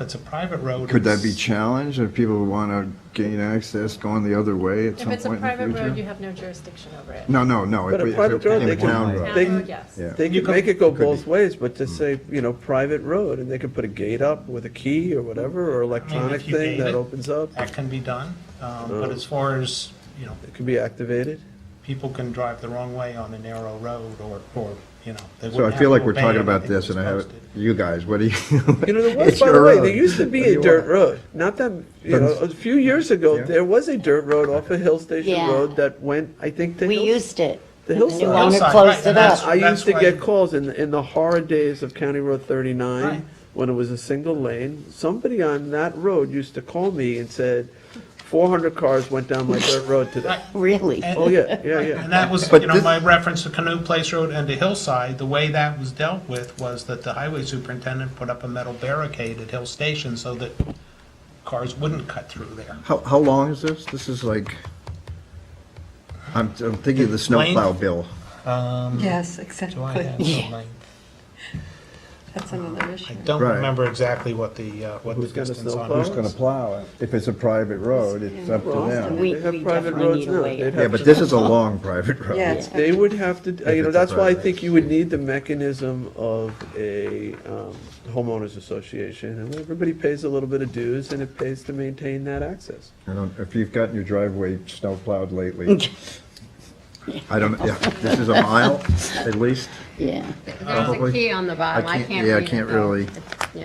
It's a private road. Could that be it's- challenged if people want to gain access going the other way at If some it's a point private in the road, you future? have no jurisdiction over it. No, no, no. But if a we- if private it road, they became can- town road. Town They- road, yes. Yeah. Hmm. They You could could- make it go could be. both ways, but just say, you know, private road, and they could put a gate up with a key or whatever, or I mean, electronic if you thing gate that it, opens up. That can be done, um, but Oh. as far as, you know, It could be activated. people can drive the wrong way on a narrow road or, or, you know. they So I wouldn't feel have like to we're obey talking about anything this, and I that's have, posted. you guys, what do you? You know, there was, It's by the your way, road. there used to What be do a you dirt want? road. Not that, you know, a few years ago, Yeah. there was a dirt road off of Hill Station Yeah. Road that went, I think, to We Hill. used it. The and hillside. new owner Hillside, closed right, and it that's- up. I used to why- get calls in, in the horror days of County Road Right. 39, when it was a single lane, somebody on that road used to call me and said, 400 cars went down my dirt road today. Right. Really? And- Oh, yeah, yeah, yeah. And that was, But you know, this- my reference to Canoe Place Road and to Hillside, the way that was dealt with was that the highway superintendent put up a metal barricade at Hill Station so that cars wouldn't cut through there. How, how long is this? This is like, I'm, I'm thinking of the snowplow bill. Um, Yes, July exactly. had some length. That's another I issue. don't Right. remember exactly what the, uh, what the Who's got a distance on. snowplow? Who's going to plow it? If it's a private road, it's up to Well, them. We- They have we private definitely roads need a now. way They'd out. have Yeah, but to- this is a long private road. Yeah, it's They would have to, you it's know, a that's why I private. think you would need the mechanism of a um, homeowners association, and everybody pays a little bit of dues, and it pays to maintain that access. I don't, if you've gotten your driveway snowplowed lately, I don't, yeah, this is a mile at least. Yeah. There's Probably. a key on the bottom, I can't read it. yeah, I can't though. really. You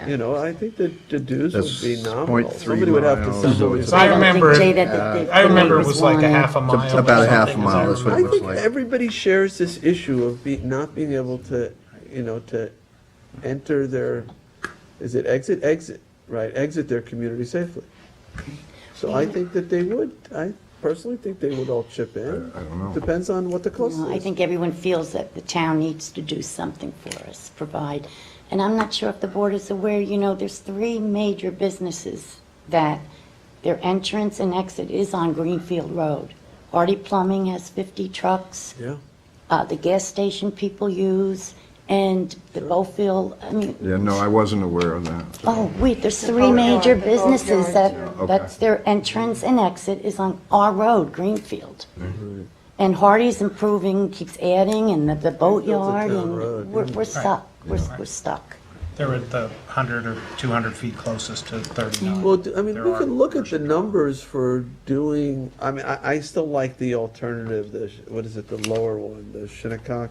Yeah. know, I think that the dues would That's be nominal. 0.3 Somebody would have to miles, send so them. it's So I don't remember think, Jay, it- that the- the I remember it road was like a wide. half a mile. or About a half something, as I mile is what it I remember. was think like- everybody shares this issue of be, not being able to, you know, to enter their, is it exit, exit, right, exit their community safely. So I think that they would, I personally think they would all chip in. I- I don't know. Depends on what the cost No, I is. think everyone feels that the town needs to do something for us, provide. And I'm not sure if the board is aware, you know, there's three major businesses that their entrance and exit is on Greenfield Road. Artie Plumbing has 50 trucks. Yeah, uh, the gas station people use, and the Bowfield, I mean, Yeah, no, I wasn't aware of that. oh, wait, there's three major businesses that, that's their entrance and exit is on our road, Greenfield. Mm-hmm. And Hardy's improving, keeps adding, and the- the boatyard, town road, and we're, we're stuck, we're, we're stuck. They're at the 100 or 200 feet closest to 39. well, d- I mean, There we are can look at the numbers for doing, I mean, I, I still like the alternative, the, sh- what is it, the lower one, the Shinnecock?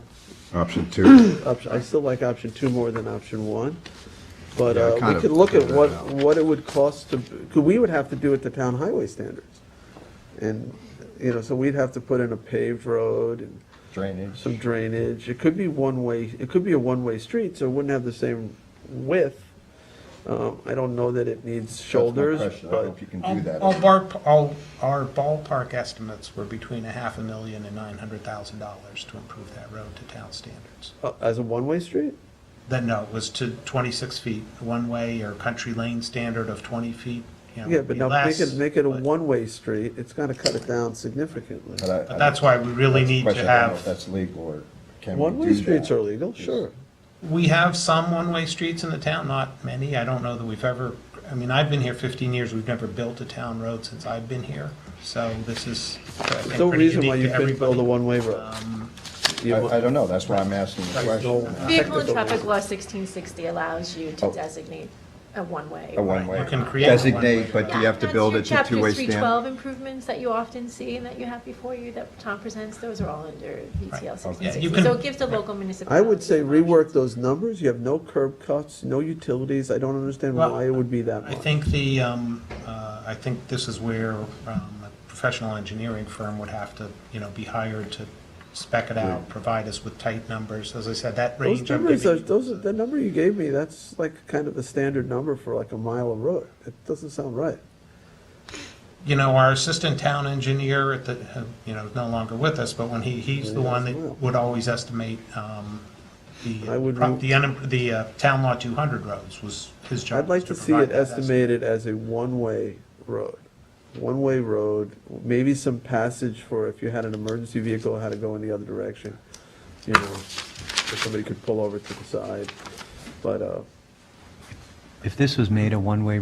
Option two. option, I still like option two more than option one. But Yeah, I uh, kind we of could look at figured what, that out. what it would cost to, because we would have to do it to town highway standards. And, you know, so we'd have to put in a paved road and Drainage. some drainage. It could be one-way, it could be a one-way street, so it wouldn't have the same width. Um, I don't know that it needs shoulders, but, you can All all bar, all, our ballpark estimates were between a half a million and nine hundred thousand dollars to improve that road to town standards. uh, as a one-way street? Then, no, it was to twenty-six feet, one-way or country lane standard of twenty feet, you know. Yeah, would but be now make less, it, make it a but- one-way street, it's gonna cut it down significantly. But that's why we really need to have, That's legal or can One-way streets are legal, sure. we have some one-way streets in the town, not many. I don't know that we've ever, I mean, I've been here fifteen years, we've never built a town road since I've been here. So this is, I think, There's no pretty reason why unique you to couldn't build a everybody. uh, one-way road. You want- don't know, that's why I'm asking the uh, question. Vehicle and Technical traffic reason. law 1660 allows you Oh. to designate a one-way. A one-way. You can create a one-way. Designate, but you have to Yeah, build it that's to your two-way Chapter 312 standard. improvements that you often see and that you have before you that Tom presents, those are all under Yeah, VTL you 1660. So can- it gives the local municipality. I would say an option. rework those numbers, you have no curb cuts, no utilities, I don't understand Well, why it would be that I much. think the, um, uh, I think this is where um, a professional engineering firm would have to, you know, be hired to spec it out, provide us with tight numbers. As I said, that Those range I'm numbers are, giving you those, are- the number you gave me, that's like kind of a standard number for like a mile of road, it doesn't sound right. you know, our assistant town engineer at the, uh, you know, is no longer with us, but when he, he's the one that would always estimate, um, I the, would pro- move- the, unim- the uh, town law two hundred roads was his job. I'd like was to see provide it that estimate. estimated as a one-way road. One-way road, maybe some passage for if you had an emergency vehicle, how to go in the other direction. You know, if somebody could pull over to the side, but, uh, if this was made a one-way